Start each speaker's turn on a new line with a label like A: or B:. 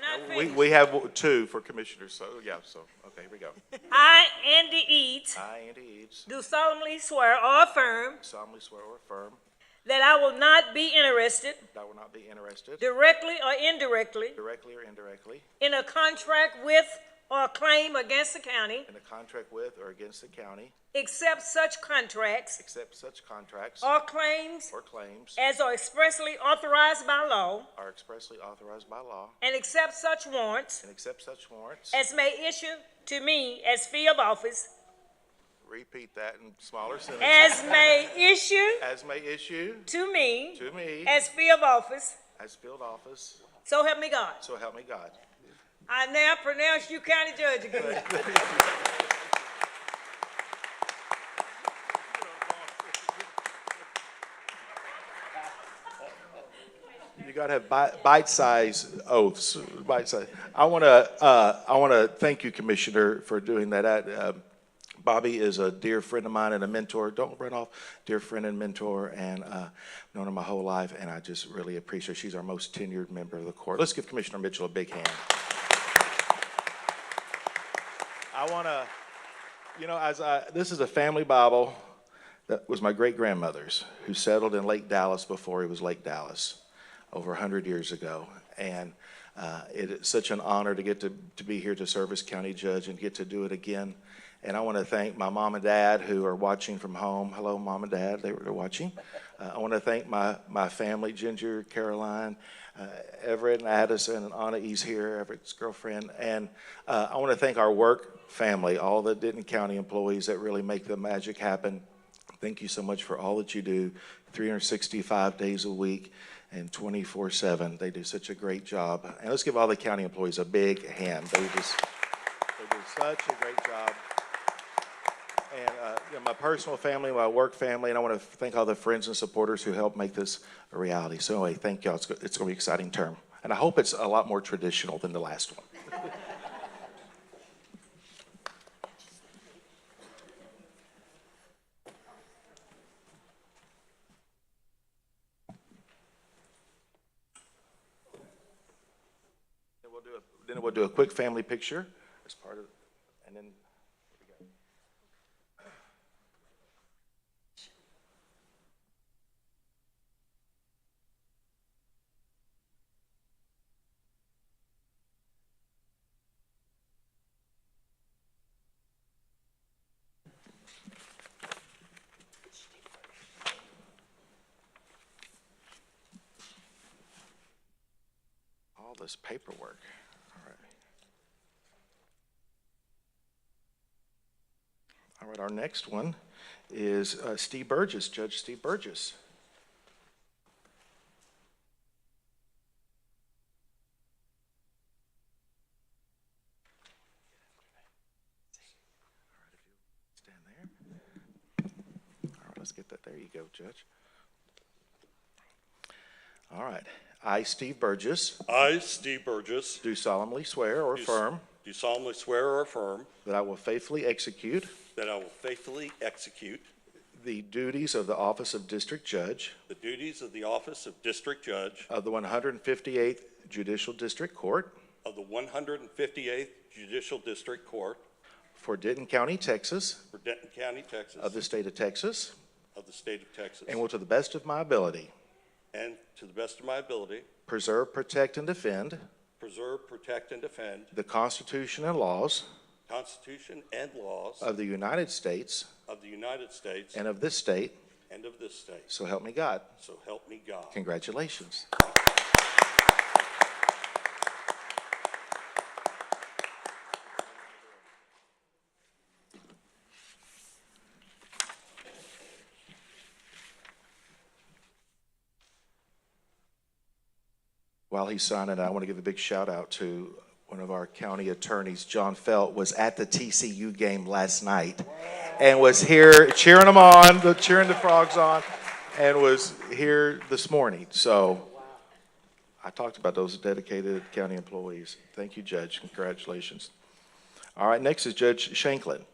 A: not
B: We,
A: finished.
B: we have two for commissioners, so, yeah, so, okay, here we go.
A: I, Andy Eads,
B: I, Andy Eads,
A: do solemnly swear or affirm
B: solemnly swear or affirm
A: that I will not be interested,
B: that I will not be interested,
A: directly or indirectly,
B: directly or indirectly,
A: in a contract with or claim against the county,
B: in a contract with or against the county,
A: except such contracts
B: except such contracts
A: or claims
B: or claims
A: as are expressly authorized by law,
B: are expressly authorized by law,
A: and accept such warrants
B: and accept such warrants.
A: as may issue to me as fee of office,
B: Repeat that in smaller sentences.
A: as may issue
B: As may issue
A: to me
B: to me
A: as fee of office,
B: as field office,
A: so help me God.
B: so help me God.
A: I now pronounce you county judge again.
B: You got to have bi- bite-sized oaths, bite-sized. I want to, uh, I want to thank you, Commissioner, for doing that. I, um, Bobby is a dear friend of mine and a mentor. Don't run off, dear friend and mentor, and uh, known her my whole life, and I just really appreciate her. She's our most tenured member of the court. Let's give Commissioner Mitchell a big hand. I want to, you know, as I, this is a family Bible that was my great grandmother's, who settled in Lake Dallas before it was Lake Dallas, over 100 years ago. And uh, it is such an honor to get to, to be here to serve as county judge and get to do it again. And I want to thank my mom and dad who are watching from home. Hello, mom and dad, they were watching. Uh, I want to thank my, my family, Ginger, Caroline, uh, Everett and Addison and Anna E's here, Everett's girlfriend. And uh, I want to thank our work family, all the Denton County employees that really make the magic happen. Thank you so much for all that you do, 365 days a week and 24/7. They do such a great job. And let's give all the county employees a big hand. They just, they do such a great job. And uh, you know, my personal family, my work family, and I want to thank all the friends and supporters who helped make this a reality. So anyway, thank y'all. It's, go- it's going to be an exciting term. And I hope it's a lot more traditional than the last one. Then we'll do a, then we'll do a quick family picture as part of, and then. All this paperwork. All right. All right, our next one is uh, Steve Burgess, Judge Steve Burgess. Stand there. All right, let's get that. There you go, Judge. All right. I, Steve Burgess,
C: I, Steve Burgess,
B: do solemnly swear or
C: Do s-
B: affirm
C: do solemnly swear or affirm
B: that I will faithfully execute
C: that I will faithfully execute
B: the duties of the office of District Judge
C: the duties of the office of District Judge
B: of the 158th Judicial District Court
C: of the 158th Judicial District Court
B: for Denton County, Texas,
C: for Denton County, Texas,
B: of the state of Texas,
C: of the state of Texas,
B: and will to the best of my ability
C: and to the best of my ability,
B: preserve, protect, and defend
C: preserve, protect, and defend
B: the Constitution and laws
C: the Constitution and laws
B: of the United States
C: of the United States
B: and of this state,
C: and of this state.
B: so help me God.
C: So help me God.
B: Congratulations. While he's signing, I want to give a big shout out to one of our county attorneys, John Felt, was at the TCU game last night and was here cheering them on, the- cheering the frogs on, and was here this morning. So I talked about those dedicated county employees. Thank you, Judge. Congratulations. All right, next is Judge Shanklin.